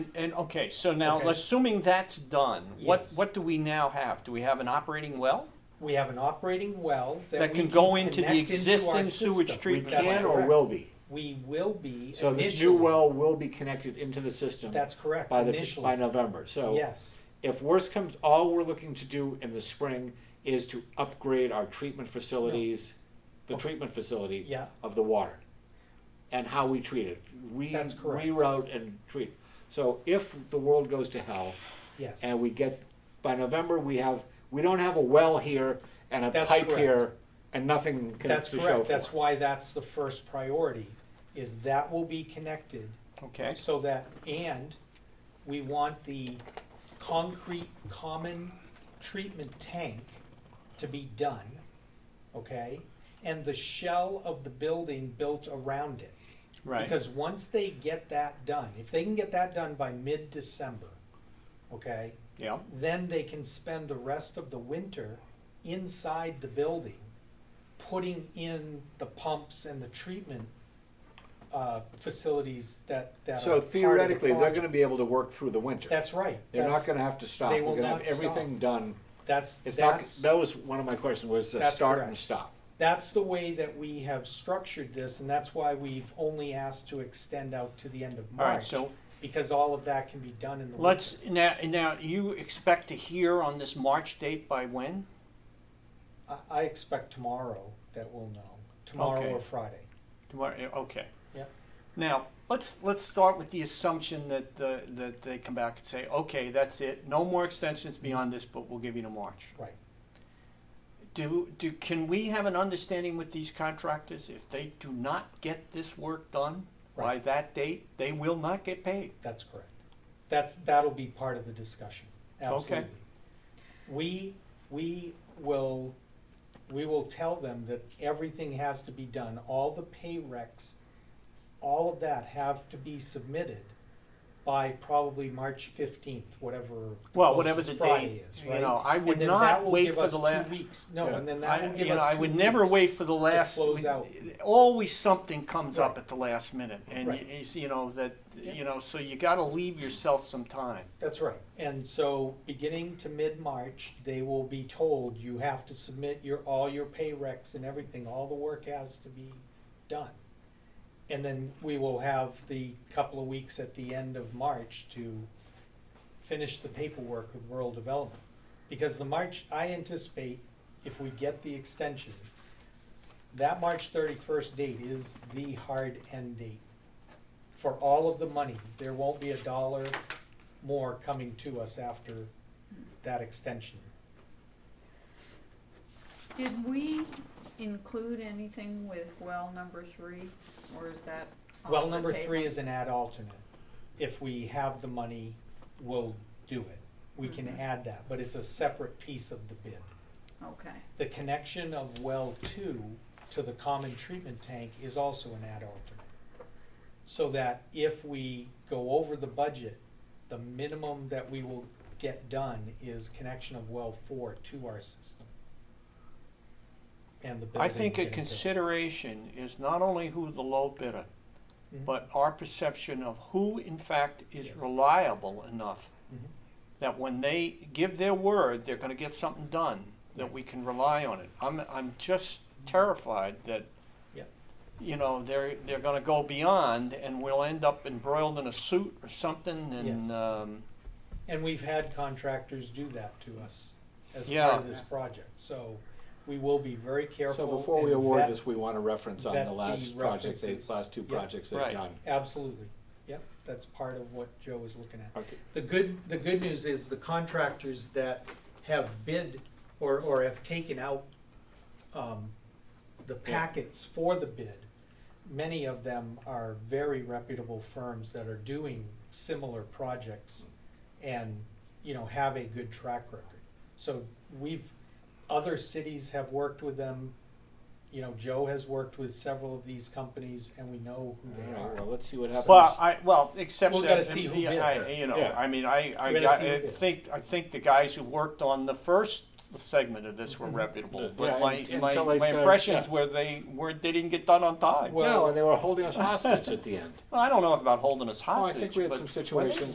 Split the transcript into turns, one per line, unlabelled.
And, okay, so now,
Okay.
assuming that's done, what,
Yes.
what do we now have? Do we have an operating well?
We have an operating well that
That
we
can go into the
connect into our
existing sewage
system.
treatment
That's
plant.
Can or
correct.
will be.
We will be
So this new
initially-
well will be connected into the system
That's correct,
by the, by
initially,
November. So
yes,
if worst comes, all we're looking to do in the spring is to upgrade our treatment facilities, the treatment facility
yeah,
of the water and how we treat it. Re-
That's correct.
Reroute and treat. So if the world goes to hell
yes.
and we get, by November, we have, we don't have a well here and a
That's
pipe
correct.
here and nothing can-
That's
to show
correct,
for
that's
it.
why that's the first priority, is that will be connected
Okay,
so that, and we want the concrete common treatment tank to be done, okay? And the shell of the building built around it.
right,
Because once they get that done, if they can get that done by mid-December, okay,
yeah,
then they can spend the rest of the winter inside the building, putting in the pumps and the treatment uh, facilities that, that are
So
part of the
theoretically, they're
project.
gonna be able to work through the winter.
That's right.
They're not
That's-
gonna have to stop.
they
We're
will
gonna have
not stop.
everything done.
That's,
It's not,
that's,
that was one of my questions, was uh,
That's
start
correct.
and stop.
that's the way that we have structured this, and that's why we've only asked to extend out to the end of
all right,
March.
so
Because all of that can be done in the winter.
let's, now, now, you expect to hear on this March date by when?
I, I expect tomorrow that we'll know, tomorrow
Okay.
or Friday.
Tomorrow, yeah, okay.
Yep.
Now, let's, let's start with the assumption that, the- that they come back and say, okay, that's it, no more extensions beyond this, but we'll give you to March.
Right.
Do, do, can we have an understanding with these contractors, if they do not get this work done by
Right.
that date, they will not get paid?
That's correct. That's, that'll be part of the discussion,
Okay.
absolutely. We, we will, we will tell them that everything has to be done, all the pay recs, all of that have to be submitted by probably March fifteenth, whatever.
Well, whatever the
closest Friday
date,
is,
you
right?
know, I
And
would
then
not
that will
wait
give
for
us
the
two
last.
weeks. No,
Yeah.
and then that
I,
will give us two
you know, I would never
weeks.
wait for the last.
close
we-
out.
Always something comes up
Right.
at the last minute, and
Right.
you, you know that
Yeah.
you know. So you got to leave yourself some time.
That's right. And so, beginning to mid-March, they will be told, you have to submit your, all your pay recs and everything, all the work has to be done. And then we will have the couple of weeks at the end of March to finish the paperwork with rural development. Because the March, I anticipate, if we get the extension, that March thirty-first date is the hard end date for all of the money. There won't be a dollar more coming to us after that extension.
Did we include anything with well number three, or is that off
Well,
the
number three
table?
is an ad alternate. If we have the money, we'll do it. We can
Mm-hmm.
add that, but it's a separate piece of the bid.
Okay,
The connection of well two to the common treatment tank is also an ad alternate. So that if we go over the budget, the minimum that we will get done is connection of well four to our system. And the building.
I think a
getting built.
consideration is not only who the low bidder,
Mhm.
but our perception of who in fact is
Yes.
reliable enough
Mhm.
that when they give their word, they're gonna get something done, that we can rely on it. I'm, I'm just terrified that,
Yep.
you know, they're, they're gonna go beyond and we'll end up embroiled in a suit or something and,
Yes.
um,
And we've had contractors do that to us as
Yeah.
part of this project, so we will be very careful.
So before we
and
award
vet-
this, we want to reference on
vet
the
the
last project, the
references.
last two
Yeah.
projects they've
Right.
done.
Absolutely, yep, that's part of what Joe is looking at.
Okay.
The good, the good news is the contractors that have bid or, or have taken out, um, the packets for the bid, many of them are very reputable firms that are doing similar projects and, you know, have a good track record. So we've, other cities have worked with them, you know, Joe has worked with several of these companies and we know who
All
they
right,
are.
well, let's see what happens.
Well, I, well, except
We've
that,
gotta see who
yeah, I-
bids.
you know,
Yeah.
I mean, I, I,
We've gotta
got-
see who
I
bids.
think, I think the guys who worked on the first segment of this were
Mhm.
reputable,
Yeah,
but my,
and-
my,
until they
my
started-
impressions
yeah.
were they were, they didn't get done on time.
Well-
No, and they were holding us hostage at the end.
Well, I don't know about holding us
Oh, I
hostage,
think we had
but-
some
Were they?
situations